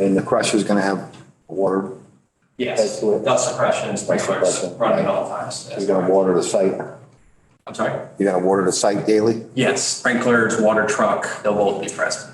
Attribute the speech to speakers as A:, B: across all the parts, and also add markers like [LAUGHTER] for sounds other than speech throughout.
A: And the crusher's gonna have water,
B: Yes,
A: That's it.
B: dust suppression and sprinklers
A: suppression.
B: running at all times.
A: you're gonna water the site,
B: I'm sorry?
A: you're gonna water the site daily?
B: Yes, sprinklers, water truck, they'll both be present.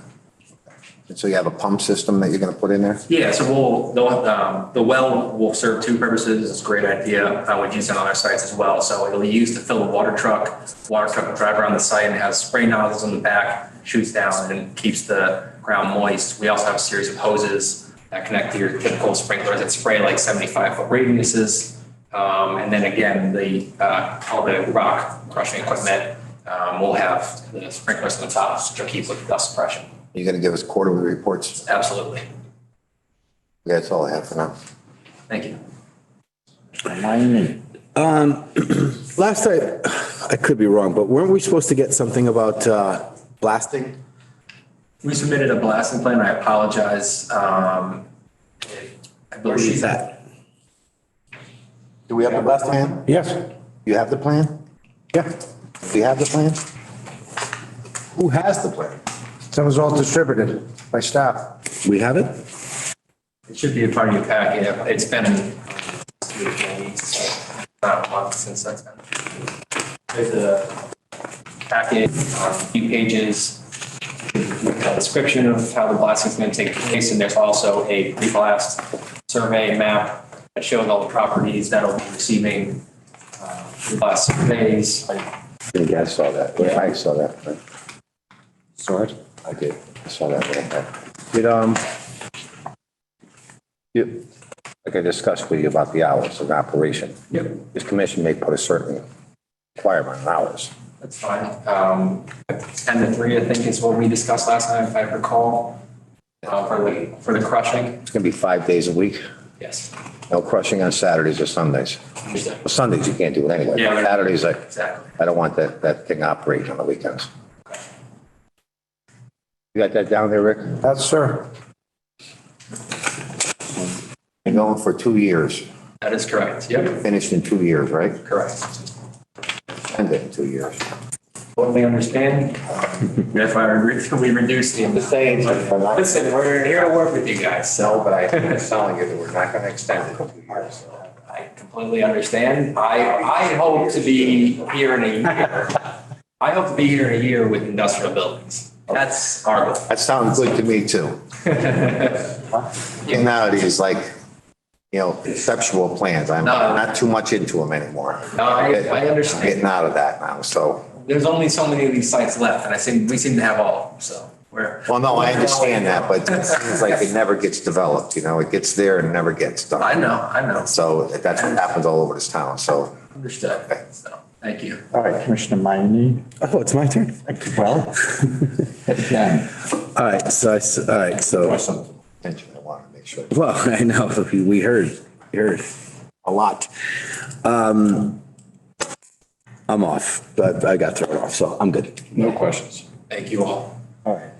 A: And so you have a pump system that you're gonna put in there?
B: Yeah, so we'll, they'll, um, the well will serve two purposes. It's a great idea. Uh, we've used it on our sites as well. So it'll be used to fill a water truck. Water truck will drive around the site and has spray nozzles on the back, shoots down and keeps the ground moist. We also have a series of hoses that connect to your typical sprinklers that spray like seventy-five foot radiuses. Um, and then again, the, uh, all the rock crushing equipment, um, will have the sprinklers on the top to keep with dust suppression.
A: You're gonna give us quarterly reports?
B: Absolutely.
A: That's all I have for now.
B: Thank you.
C: Um, Last I, I could be wrong, but weren't we supposed to get something about uh, blasting?
B: We submitted a blasting plan. I apologize. Um, I believe that.
A: Do we have the plan?
D: Yes.
A: You have the plan?
D: Yeah.
A: Do you have the plan? Who has the plan?
D: That was all distributed by staff.
C: We have it?
B: It should be a part of your packet. It's been um, about a month since that's been. There's a packet, um, a few pages, with a description of how the blasting's going to take place. And there's also a pre-blast survey map that shows all the properties that'll be receiving uh, blast surveys.
A: I think I saw that. Yeah, I saw that. Saw it? I did. I saw that. yeah.
D: It, um,
A: You- Like I discussed with you about the hours of operation. Yep. This commission may put a certain requirement on hours.
B: That's fine. Um, 10 to 3, I think, is what we discussed last time, if I recall, uh, for the, for the crushing.
A: It's gonna be five days a week,
B: Yes.
A: no crushing on Saturdays or Sundays.
B: Understood.
A: Well, Sundays you can't do it anyway.
B: Yeah.
A: Saturdays, I,
B: Exactly.
A: I don't want that, that thing operating on the weekends. You got that down there, Rick?
D: that's, sir.
A: You're going for two years,
B: That is correct. Yep.
A: finished in two years, right?
B: Correct.
A: End it in two years.
B: Totally understand. Um, If I, re- we reduce the. Listen, we're here to work with you guys, so, but I.
E: It's telling you that we're not gonna extend it two years.
B: I completely understand. I, I hope to be here in a year. I hope to be here in a year with industrial buildings. That's our goal.
A: That sounds good to me
B: [LAUGHS]
A: too. And nowadays, like, you know, conceptual plans, I'm
B: No.
A: not too much into them anymore.
B: No, I- I understand.
A: Getting out of that now, so,
B: there's only so many of these sites left, and I seem, we seem to have all, of them, so we're.
A: well, no, I understand that, but it seems like it never gets developed, you know, it gets there and never gets
B: I
A: done.
B: know, I know, it's
A: So that's what happens all over this town, so.
B: understood, so, thank you.
E: All right, Commissioner Mayne.
C: Oh, it's my turn.
E: Well, [LAUGHS] again,
C: All right, so, I s- all right, so,
A: Some attention, I want to make sure.
C: well, [LAUGHS] I know, we- we heard, we heard a lot. Um, I'm off, but I got thrown off, so I'm good.
F: No questions.
B: Thank you all.
E: all right.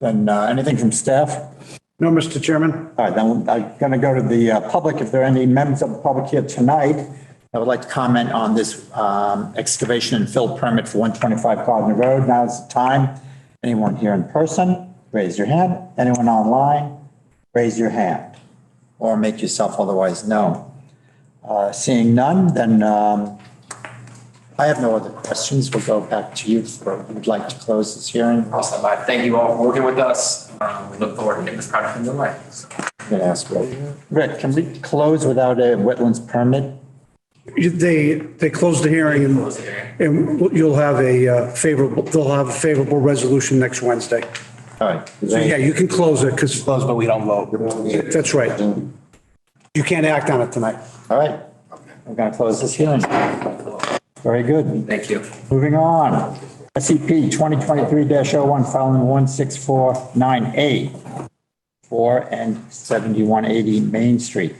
E: Then uh, anything from staff?
D: No, Mr. Chairman?
E: All right, then I'm going to go to the uh, public. If there are any members of the public here tonight that would like to comment on this um, excavation and fill permit for 125 Gardner Road, now's the time. Anyone here in person, raise your hand. Anyone online, raise your hand or make yourself otherwise known. Uh, Seeing none, then um, I have no other questions. We'll go back to you for, if you'd like to close this hearing. I'm
B: Awesome, I thank you all for working with us, um, we look forward to getting this product in the light.
E: going to ask Rick. Rick, can we close without a wetlands permit?
G: They, they closed the hearing and, and you'll have a uh, favorable, they'll have a favorable resolution next Wednesday.
E: All right.
G: So yeah, you can close it because. Close, but we don't vote. That's right. You can't act on it tonight.
E: All right, I'm going to close this hearing. Very good.
B: Thank you.
E: Moving on. E SCP 2023-01, filing 16498, 4 and 7180 Main Street.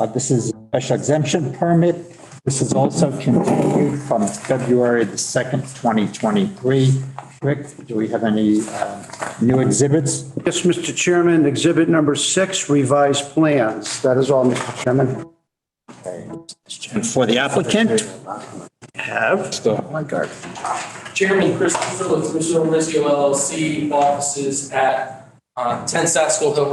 E: Uh, This is a special exemption permit. This is also continued from February the 2nd, 2023. Rick, do we have any uh, new exhibits?
G: Yes, Mr. Chairman, exhibit number six, revised plans. That is all, Mr. Chairman.
E: And for the applicant?
H: Chairman Chris Phillips, Michelle Rescue LLC, offices at uh, 10 Saskell Hill